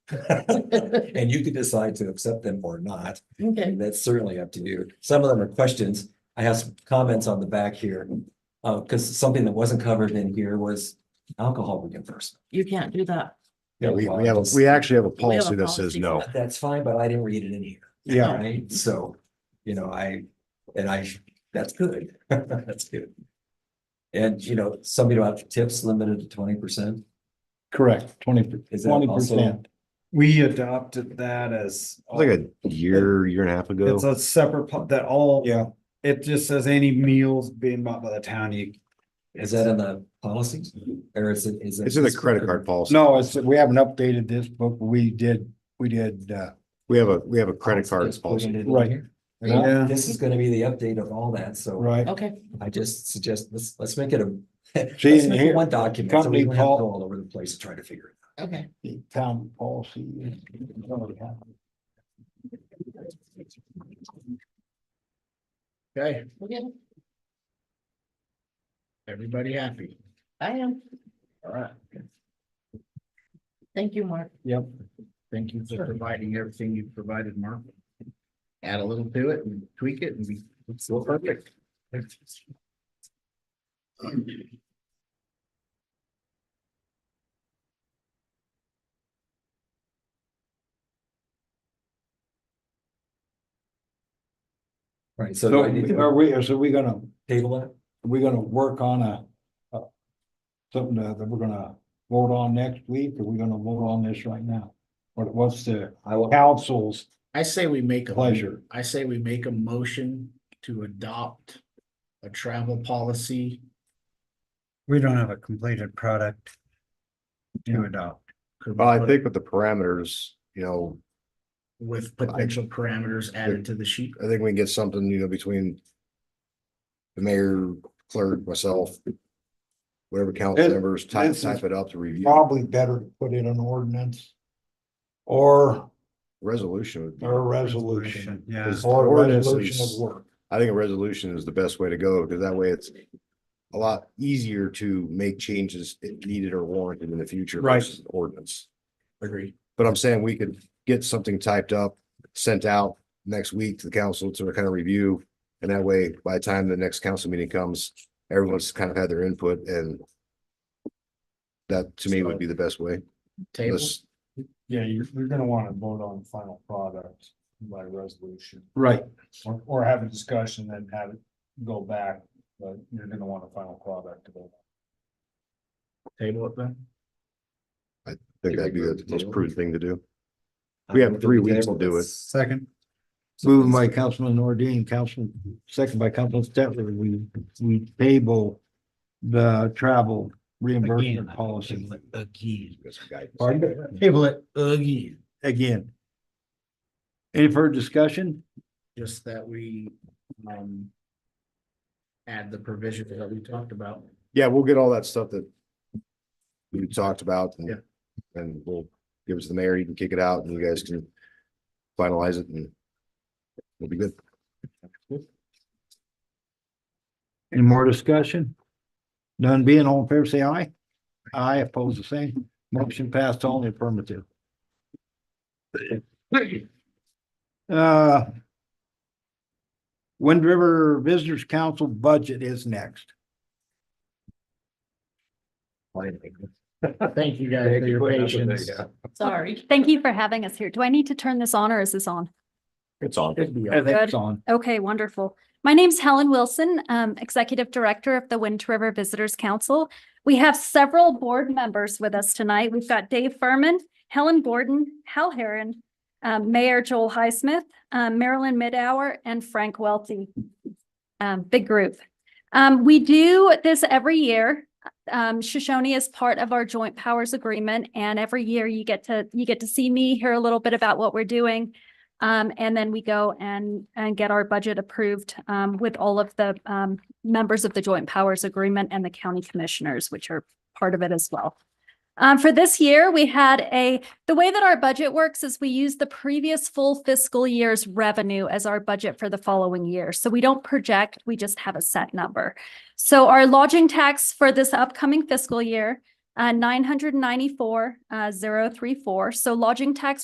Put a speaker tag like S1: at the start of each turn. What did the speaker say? S1: And you could decide to accept them or not.
S2: Okay,
S1: And That's certainly up to you. Some of them are questions. I have some comments on the back here. Uh, because something that wasn't covered in here was alcohol reimbursement.
S2: you can't do that.
S3: Yeah, we, we have, a- we actually
S2: We have
S3: have a
S2: a
S3: policy that says
S2: policy
S3: no.
S2: for
S1: That's fine, but I didn't read it in here.
S3: Yeah,
S1: Right? So, you know, I, and I, that's good. That's good. And, you know, something about tips limited to twenty percent.
S4: Correct, twenty,
S1: Is that
S4: twenty
S1: also-
S4: percent.
S5: We adopted that as.
S3: It was like a year, year and a half ago.
S5: It's a separate, po- that all.
S4: Yeah.
S5: It just says any meals being bought by the town, you.
S1: Is that in the policies or is it, is it?
S3: It's in the credit card policy.
S4: No, it's, we haven't updated this book, we did, we did, uh,
S3: We have a, we have a credit card
S1: It's
S3: policy.
S1: included in
S4: Right.
S1: here.
S5: Yeah.
S1: This is gonna be the update of all that, so
S4: right,
S2: Okay,
S1: I just suggest, let's, let's make it a. let's
S4: See,
S1: make it
S4: here-
S1: One document, so we
S4: company
S1: don't have to
S4: pol-
S1: go all over the place to try to figure it
S2: okay.
S4: the town policy. is- Okay,
S2: we're good.
S4: everybody happy,
S2: I am.
S4: all right,
S2: Thank you, Mark.
S4: yep, thank you for providing everything you've provided, Mark. Add a little to it and tweak it and be, it's still perfect.
S1: out. Right, so do
S4: So
S1: I need to
S4: are we, so we gonna
S1: table that?
S4: we're gonna work on a, a- something that that we're gonna vote on next week, or we're gonna vote on this right now? What, what's the
S1: I will,
S4: council's
S6: I say we make a,
S4: pleasure?
S6: I say we make a motion to adopt a travel policy,
S5: We don't have a completed product. To adopt.
S3: Well, Oh, I think with the parameters, you know,
S6: with potential parameters added to the sheet.
S3: I think we can get something, you know, between the mayor, clerk, myself, whatever council
S4: This-
S3: members, type,
S4: this is
S3: type it up to review.
S4: Probably better to put in an ordinance or,
S3: Resolution would be,
S4: or a resolution.
S5: Yeah.
S4: Or a
S3: Ordinance
S4: resolution
S3: is-
S4: of work.
S3: I think a resolution is the best way to go, because that way it's a lot easier to make changes if needed or warranted in the future
S4: Right.
S3: versus an ordinance.
S6: Agreed.
S3: But I'm saying we could get something typed up, sent out next week to the council to kind of review. And that way, by the time the next council meeting comes, everyone's kind of had their input and that to me would be the best way.
S6: Table,
S3: Let's-
S4: Yeah, you're, you're gonna wanna vote on the final product by resolution. Right. Or, or have a discussion, then have it go back, but you're gonna want a final product to go.
S6: table it then.
S3: I think that'd be the most prudent thing to do.
S1: I
S3: We have
S1: will
S3: three weeks to
S1: table
S3: do it.
S1: this.
S4: Second.
S1: So
S4: Moved
S1: let's-
S4: by Councilman Ordean, Councilman, second by Councilman Stetler, we, we table the travel reimbursement policy
S6: Again.
S3: Get some guidance.
S6: Table it again.
S4: again. Any further discussion?
S6: Just that we, um, add the provisions that we talked about.
S3: Yeah, we'll get all that stuff that we talked about
S6: Yeah.
S3: and, and we'll give it to the mayor, you can kick it out and you guys can finalize it and we'll be good.
S4: Any more discussion? None being all in favor, say aye. Aye, opposed, the same. Motion passed all in the affirmative. Uh. Wind River Visitors Council budget is next.
S6: Thank you guys for your patience.
S2: Sorry.
S7: Thank you for having us here. Do I need to turn this on or is this on?
S3: It's on.
S6: It'd be all right.
S4: That's on.
S7: Okay, wonderful. My name's Helen Wilson, um, Executive Director of the Wind River Visitors Council. We have several board members with us tonight. We've got Dave Furman, Helen Gordon, Hal Heron, um, Mayor Joel Highsmith, um, Marilyn Midhour, and Frank Welty. Um, big group. Um, we do this every year. Um, Shoshone is part of our joint powers agreement, and every year you get to, you get to see me, hear a little bit about what we're doing. Um, and then we go and, and get our budget approved, um, with all of the, um, members of the Joint Powers Agreement and the county commissioners, which are part of it as well. Um, for this year, we had a, the way that our budget works is we use the previous full fiscal year's revenue as our budget for the following year. So we don't project, we just have a set number. So our lodging tax for this upcoming fiscal year uh, nine hundred ninety-four, uh, zero three four. So lodging tax